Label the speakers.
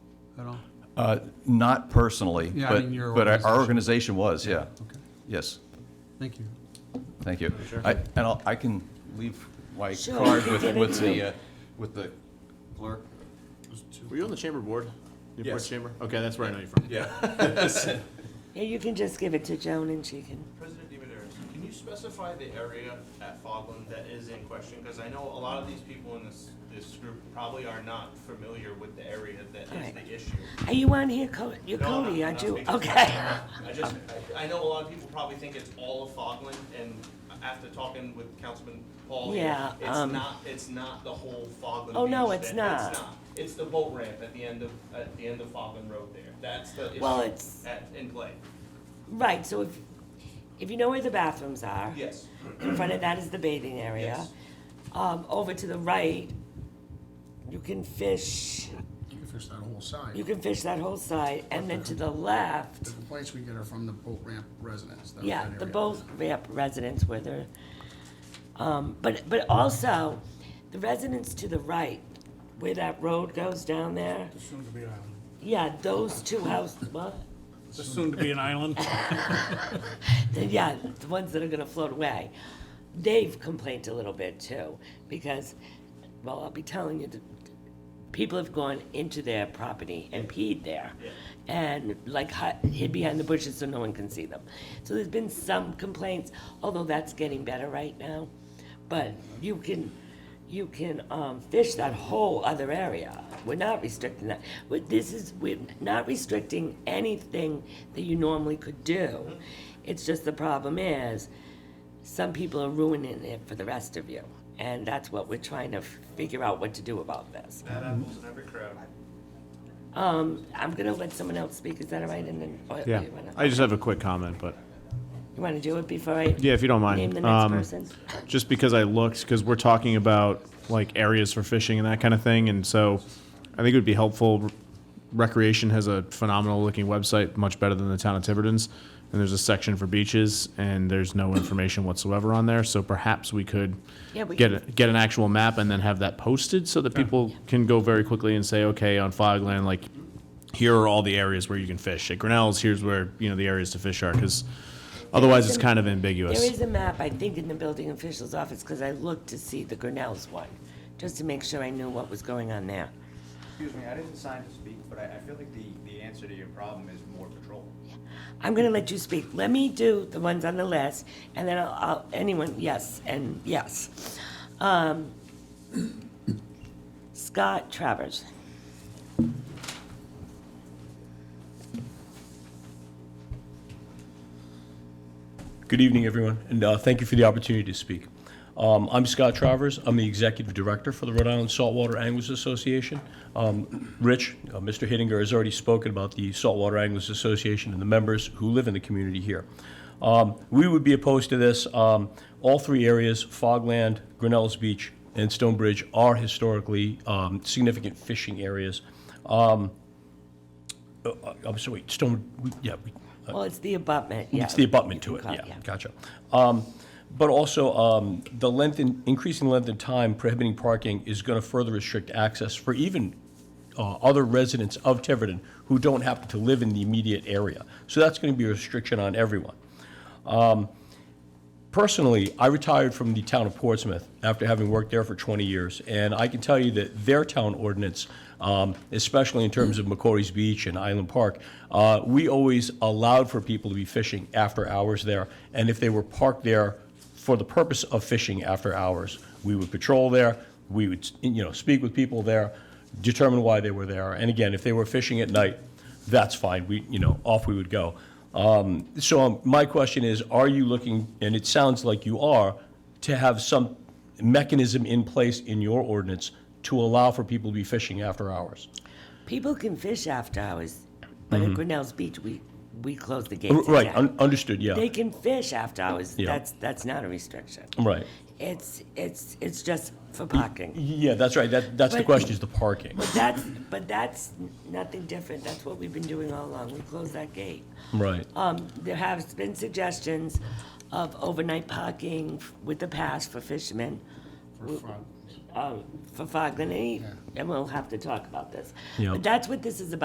Speaker 1: at all?
Speaker 2: Uh, Not personally,
Speaker 1: Yeah, I
Speaker 2: but,
Speaker 1: mean, your
Speaker 2: but our- our
Speaker 1: organization.
Speaker 2: organization was, yeah.
Speaker 1: Okay,
Speaker 2: Yes,
Speaker 1: thank you.
Speaker 2: thank you. I- And I'll- I can leave my
Speaker 3: Sure.
Speaker 2: card with, with the, uh, with the clerk.
Speaker 4: Were you on the chamber board? Newport
Speaker 2: Yes.
Speaker 4: Chamber? Okay, that's where I know you from.
Speaker 2: Yeah.
Speaker 3: Yeah, you can just give it to Joan and she can.
Speaker 5: President Dimidaris, can you specify the area at Fogland that is in question? Because I know a lot of these people in this, this group probably are not familiar with the area that is
Speaker 3: Alright.
Speaker 5: the issue.
Speaker 3: Are you on here, Co- you're
Speaker 5: No, I'm
Speaker 3: Cody,
Speaker 5: not-
Speaker 3: aren't
Speaker 5: I'm
Speaker 3: you?
Speaker 5: not speaking.
Speaker 3: Okay.
Speaker 5: I just, I I know a lot of people probably think it's all of Fogland, and after talking with Councilman Paul, here,
Speaker 3: Yeah,
Speaker 5: it's
Speaker 3: um,
Speaker 5: not, it's not the whole Fogland.
Speaker 3: Oh, no,
Speaker 5: Beach
Speaker 3: it's
Speaker 5: that-
Speaker 3: not.
Speaker 5: It's not. It's the boat ramp at the end of, at the end of Fogland Road there. That's the
Speaker 3: Well,
Speaker 5: issue
Speaker 3: it's-
Speaker 5: at, in play.
Speaker 3: Right, so if, if you know where the bathrooms are.
Speaker 5: Yes,
Speaker 3: In front of that is the bathing area.
Speaker 5: Yes.
Speaker 3: Um, over to the right, you can fish,
Speaker 6: You can fish that whole side.
Speaker 3: you can fish that whole side, and then to the left,
Speaker 6: The complaints we get are from the boat ramp residents. that-
Speaker 3: yeah,
Speaker 6: that
Speaker 3: the
Speaker 6: area.
Speaker 3: both ramp residents where they're, um, but, but also, the residents to the right, where that road goes down there,
Speaker 7: Soon to be an island.
Speaker 3: yeah, those two houses, what?
Speaker 7: Soon to be an island.
Speaker 3: The- Yeah, the ones that are gonna float away. They've complained a little bit too, because, well, I'll be telling you, the people have gone into their property and peed there. And like hi- hid behind the bushes so no one can see them. So there's been some complaints, although that's getting better right now. But you can, you can, um, fish that whole other area. We're not restricting that. But this is, we're not restricting anything that you normally could do. It's just the problem is, some people are ruining it for the rest of you. And that's what we're trying to f- figure out what to do about this.
Speaker 5: bad apples in every crowd.
Speaker 3: Um, I'm gonna let someone else speak, is that all right? And then, or you
Speaker 4: Yeah,
Speaker 3: wanna-
Speaker 4: I just have a quick comment, but,
Speaker 3: You wanna do it before I?
Speaker 4: yeah, if you don't mind.
Speaker 3: Name the
Speaker 4: Um,
Speaker 3: next person?
Speaker 4: just because I looked, because we're talking about like areas for fishing and that kind of thing, and so I think it would be helpful. Recreation has a phenomenal looking website, much better than the town of Tiverton's, and there's a section for beaches, and there's no information whatsoever on there. So perhaps we could
Speaker 3: Yeah, we
Speaker 4: get
Speaker 3: can-
Speaker 4: a, get an actual map and then have that posted so that people can go very quickly and say, okay, on Fogland, like here are all the areas where you can fish. At Grinnell's, here's where you know the areas to fish are, because otherwise it's
Speaker 3: an-
Speaker 4: kind of ambiguous.
Speaker 3: There is a map, I think, in the building official's office, cause I looked to see the Grinnell's one, just to make sure I knew what was going on there.
Speaker 8: Excuse me, I didn't sign to speak, but I, I feel like the, the answer to your problem is more patrol.
Speaker 3: I'm gonna let you speak. Let me do the ones on the list, and then I'll, I'll, anyone, yes, and yes. Um, Scott Travers.
Speaker 9: Good evening, everyone, and uh, thank you for the opportunity to speak. Um, I'm Scott Travers. I'm the Executive Director for the Rhode Island Saltwater Anglers Association. Um, Rich, uh, Mr. Hittinger has already spoken about the Saltwater Anglers Association and the members who live in the community here. Um, We would be opposed to this. Um, All three areas, Fogland, Grinnell's Beach, and Stonebridge, are historically um, significant fishing areas. Um, uh, I'm sorry, Stone, we- yeah, we-
Speaker 3: Well, it's the abutment, yeah.
Speaker 9: Uh, It's the abutment to
Speaker 3: You
Speaker 9: it,
Speaker 3: can call-
Speaker 9: yeah, gotcha. Um, But also, um, the length, in- increasing length in time prohibiting parking is going to further restrict access for even uh, other residents of Tiverton who don't happen to live in the immediate area. So that's going to be a restriction on everyone. Personally, I retired from the town of Portsmouth after having worked there for 20 years, and I can tell you that their town ordinance, um, especially in terms of McCory's Beach and Island Park, uh, we always allowed for people to be fishing after hours there, and if they were parked there for the purpose of fishing after hours, we would patrol there, we would, you know, speak with people there, determine why they were there, and again, if they were fishing at night, that's fine, we, you know, off we would go. Um, So um, my question is, are you looking, and it sounds like you are, to have some mechanism in place in your ordinance to allow for people to be fishing after hours?
Speaker 3: People can fish after hours, but at Grinnell's Beach, we, we close the gates.
Speaker 9: Mm-hmm. R- Right,
Speaker 3: at
Speaker 9: un-
Speaker 3: night.
Speaker 9: understood, yeah,
Speaker 3: They can fish after hours.
Speaker 9: Yeah.
Speaker 3: That's, that's not a restriction.
Speaker 9: right.
Speaker 3: It's, it's, it's just for parking.
Speaker 9: Yeah, that's right, that, that's the
Speaker 3: But-
Speaker 9: question, is the parking,
Speaker 3: But that's, but that's nothing different. That's what we've been doing all along. We close that gate.
Speaker 9: right.
Speaker 3: Um, there have been suggestions of overnight parking with the pass for fishermen. uh,
Speaker 6: For fun.
Speaker 3: um, for Fogland, and he- and we'll have to talk about this.
Speaker 9: Yeah.
Speaker 3: But that's what this is about.